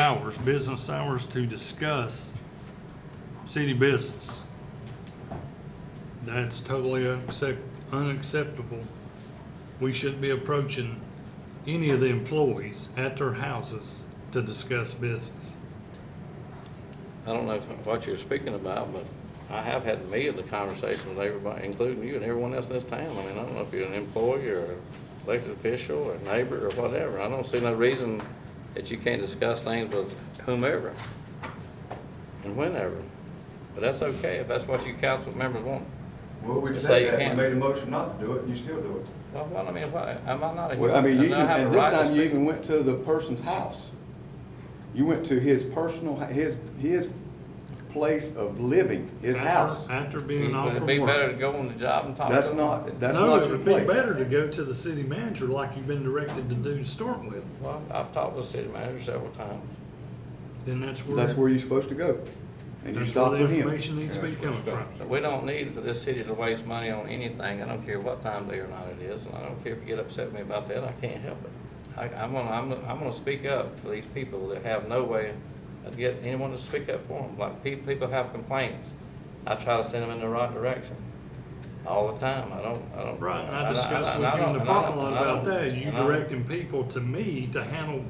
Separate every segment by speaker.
Speaker 1: hours, business hours, to discuss city business. That's totally unaccept- unacceptable. We shouldn't be approaching any of the employees at their houses to discuss business.
Speaker 2: I don't know if- what you're speaking about, but I have had me of the conversation with everybody, including you and everyone else in this town. I mean, I don't know if you're an employee or an elected official or a neighbor or whatever. I don't see no reason that you can't discuss things with whomever and whenever. But that's okay if that's what you council members want.
Speaker 3: Well, we've
Speaker 2: Say
Speaker 3: said
Speaker 2: you
Speaker 3: that,
Speaker 2: can't.
Speaker 3: we made a motion not to do it, and you still do it.
Speaker 2: Well, what, I mean, why, am I not? a-
Speaker 3: Well, I mean, you
Speaker 2: do
Speaker 3: even,
Speaker 2: have a
Speaker 3: and this
Speaker 2: right to
Speaker 3: time you
Speaker 2: speak?
Speaker 3: even went to the person's house. You went to his personal, his, his place of living, his
Speaker 1: After-
Speaker 3: house.
Speaker 1: After being off
Speaker 2: Would it
Speaker 1: from
Speaker 2: be better
Speaker 1: work.
Speaker 2: to go on the job and talk to
Speaker 3: That's
Speaker 2: them?
Speaker 3: not, that's
Speaker 1: No,
Speaker 3: not
Speaker 1: it
Speaker 3: your
Speaker 1: would be
Speaker 3: place.
Speaker 1: better to go to the city manager like you've been directed to do to start with.
Speaker 2: Well, I've talked with the city manager several times.
Speaker 1: Then that's where.
Speaker 3: That's where you're supposed to go. And you
Speaker 1: That's
Speaker 3: stop
Speaker 1: where the
Speaker 3: with him.
Speaker 1: information needs to be coming from.
Speaker 2: So we don't need for this city to waste money on anything. I don't care what time of day or night it is, and I don't care if you get upset with me about that, I can't help it. I, I'm gonna, I'm, gonna- I'm gonna speak up for these people that have no way of getting anyone to speak up for them. Like, people, people have complaints. I try to send them in the right direction all the time. I don't, I don't.
Speaker 1: Right, and
Speaker 2: I-
Speaker 1: I
Speaker 2: I-
Speaker 1: discussed
Speaker 2: I
Speaker 1: with you in
Speaker 2: don't-
Speaker 1: the
Speaker 2: and I don't-
Speaker 1: parking lot
Speaker 2: and I
Speaker 1: about
Speaker 2: don't-
Speaker 1: that, you
Speaker 2: and I don't-
Speaker 1: directing people to me to handle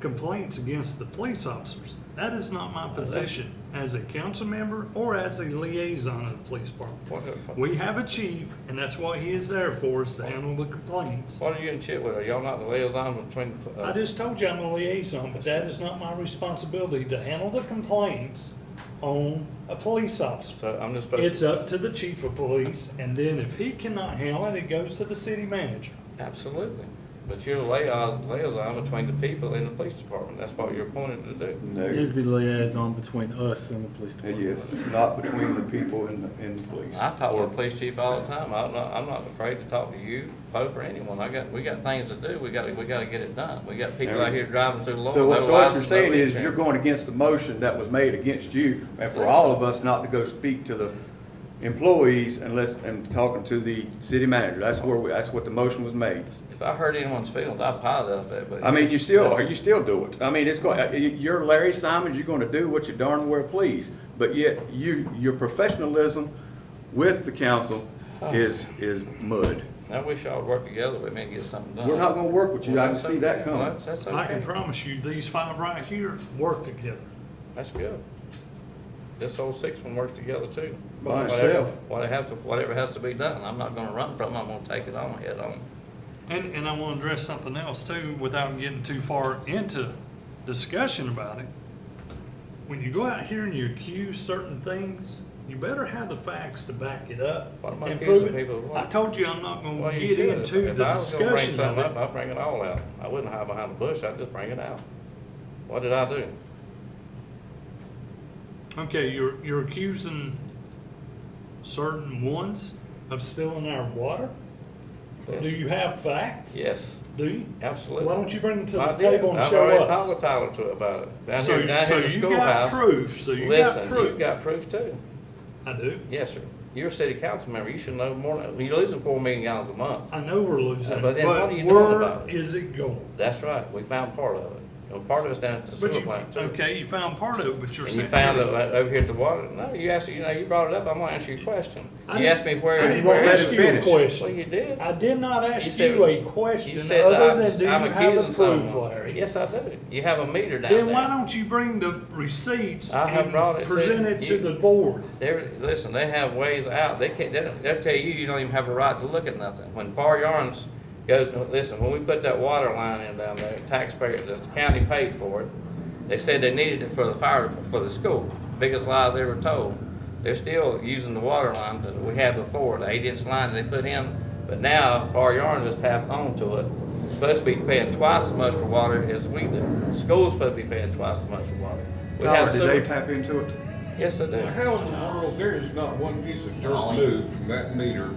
Speaker 1: complaints against the police officers. That is not my
Speaker 2: that's-
Speaker 1: position as a council member or as a liaison of the police department.
Speaker 2: What, what-
Speaker 1: We have a chief, and that's what he is there for, is to handle the complaints.
Speaker 2: what are you in chit with? Are y'all not the liaison between? uh,
Speaker 1: I just told you I'm a liaison, but that is not my responsibility to handle the complaints on a police officer.
Speaker 2: So I'm just supposed to.
Speaker 1: It's up to the chief of police, and then if he cannot handle it, it goes to the city manager.
Speaker 2: Absolutely. But you're a liaison, liaison between the people and the police department. That's what you're appointed to do.
Speaker 3: No,
Speaker 4: Is the liaison between us and the police department?
Speaker 3: yes, not between the people and the, and the police.
Speaker 2: I talk to
Speaker 3: Or-
Speaker 2: the police chief all the time. I'm not, I'm not afraid to talk to you, Pope, or anyone. I got, we got things to do. We gotta, we gotta get it done. We got people out here driving through the law.
Speaker 3: So, so what you're saying is you're going against the motion that was made against you and for all of us not to go speak to the employees unless, and talking to the city manager. That's where, we- that's what the motion was made.
Speaker 2: If I hurt anyone's feelings, I apologize for that, but.
Speaker 3: I mean, you still,
Speaker 2: That's-
Speaker 3: are you still do it. I mean, it's going, you're Larry Simons, you're gonna do what you darn well please. But yet you, your professionalism with the council is, is mud.
Speaker 2: I wish y'all would work together with me and get something done.
Speaker 3: We're not gonna work with you. I can see that
Speaker 2: Well,
Speaker 3: coming.
Speaker 2: That's, that's
Speaker 1: I can
Speaker 2: okay.
Speaker 1: promise you, these five right here work together.
Speaker 2: That's good. This whole six one works together too.
Speaker 3: By
Speaker 2: Whatever-
Speaker 3: itself.
Speaker 2: Whatever has to, whatever has to be done, I'm not gonna run from it, I'm gonna take it on head on.
Speaker 1: And, and I want to address something else too, without getting too far into discussion about it. When you go out here and you accuse certain things, you better have the facts to back it up
Speaker 2: What am I
Speaker 1: and prove
Speaker 2: accusing people of
Speaker 1: it.
Speaker 2: what?
Speaker 1: I told you I'm not
Speaker 2: Well,
Speaker 1: gonna
Speaker 2: you
Speaker 1: get
Speaker 2: should.
Speaker 1: into
Speaker 2: If
Speaker 1: the
Speaker 2: I was gonna bring
Speaker 1: discussion of
Speaker 2: something up,
Speaker 1: it.
Speaker 2: I'd bring it all out. I wouldn't hide behind the bush, I'd just bring it out. What did I do?
Speaker 1: Okay, you're, you're accusing certain ones of stealing our water? Do
Speaker 2: Yes.
Speaker 1: you have facts?
Speaker 2: Yes,
Speaker 1: Do you?
Speaker 2: absolutely.
Speaker 1: Why don't you bring it to the
Speaker 2: I did.
Speaker 1: table and show
Speaker 2: I've already talked with
Speaker 1: us?
Speaker 2: Tyler to about it. Down
Speaker 1: So,
Speaker 2: here, down
Speaker 1: so
Speaker 2: here at the
Speaker 1: you got
Speaker 2: schoolhouse.
Speaker 1: proof, so you got
Speaker 2: Listen, you've
Speaker 1: proof.
Speaker 2: got proof too.
Speaker 1: I do.
Speaker 2: Yes, sir. You're a city council member, you should know more, than- you're losing four million gallons a month.
Speaker 1: I know we're losing,
Speaker 2: Uh,
Speaker 1: but
Speaker 2: but then what are you doing
Speaker 1: where
Speaker 2: about it?
Speaker 1: is it going?
Speaker 2: That's right, we found part of it. Well, part of it's down at the sewer
Speaker 1: But you,
Speaker 2: plant too.
Speaker 1: okay, you found part of it, but you're
Speaker 2: And you
Speaker 1: saying.
Speaker 2: found it like, over here at the water, no, you asked, you know, you brought it up, I'm gonna ask you a question.
Speaker 1: I
Speaker 2: You
Speaker 1: didn't-
Speaker 2: asked me where,
Speaker 1: I
Speaker 3: You
Speaker 1: didn't
Speaker 3: won't
Speaker 2: where,
Speaker 3: let it
Speaker 1: ask you a
Speaker 3: finish.
Speaker 2: well,
Speaker 1: question.
Speaker 2: you did.
Speaker 1: I did not
Speaker 2: You
Speaker 1: ask
Speaker 2: said-
Speaker 1: you a
Speaker 2: You
Speaker 1: question
Speaker 2: said that I'm-
Speaker 1: other than do you
Speaker 2: I'm
Speaker 1: have
Speaker 2: accusing
Speaker 1: the proof,
Speaker 2: someone.
Speaker 1: Larry?
Speaker 2: Yes, I do. You have a meter down there.
Speaker 1: Then why don't you bring the receipts
Speaker 2: I have
Speaker 1: and
Speaker 2: brought it to
Speaker 1: present it to
Speaker 2: you.
Speaker 1: the board?
Speaker 2: They're, listen, they have ways out. They can't, they'll, they'll tell you, you don't even have a right to look at nothing. When Far Yarns goes, listen, when we put that water line in down there, taxpayers, the county paid for it. They said they needed it for the fire, for the school. Biggest lies ever told. They're still using the water line that we had before, the eight inch line they put in. But now Far Yarns has tapped onto it. Supposed to be paying twice as much for water as we do. School's supposed to be paying twice as much for water. We have
Speaker 3: Tyler, did they
Speaker 2: sewer-
Speaker 3: tap into it?
Speaker 2: Yes, they do.
Speaker 5: How in the world, there is not one piece of dirt moved from that meter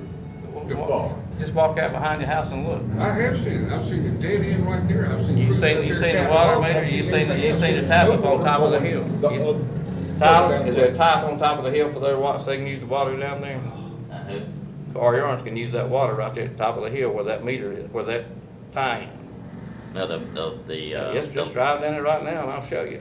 Speaker 5: to far?
Speaker 2: Just walk out behind your house and look.
Speaker 5: I have seen it, I've seen the dead end right there, I've seen.
Speaker 2: You
Speaker 5: crews
Speaker 2: seen-
Speaker 5: out
Speaker 2: you
Speaker 5: there
Speaker 2: seen the
Speaker 5: tapping
Speaker 2: water
Speaker 5: off.
Speaker 2: meter,
Speaker 5: I've
Speaker 2: you
Speaker 5: seen
Speaker 2: seen-
Speaker 5: everything
Speaker 2: you
Speaker 5: else.
Speaker 2: seen the tap up
Speaker 5: No
Speaker 2: on top of the
Speaker 5: water
Speaker 2: hill.
Speaker 5: going the
Speaker 2: You-
Speaker 5: other-
Speaker 2: Tyler,
Speaker 5: down
Speaker 2: is
Speaker 5: the-
Speaker 2: there a pipe on top of the hill for their water, so they can use the water down there?
Speaker 6: Uh,
Speaker 2: Our yards can use that water right there at the top of the hill where that meter is, where that tie in.
Speaker 6: No, the, the, the, uh.
Speaker 2: Just, just
Speaker 6: the-
Speaker 2: drive down there right now and I'll show you.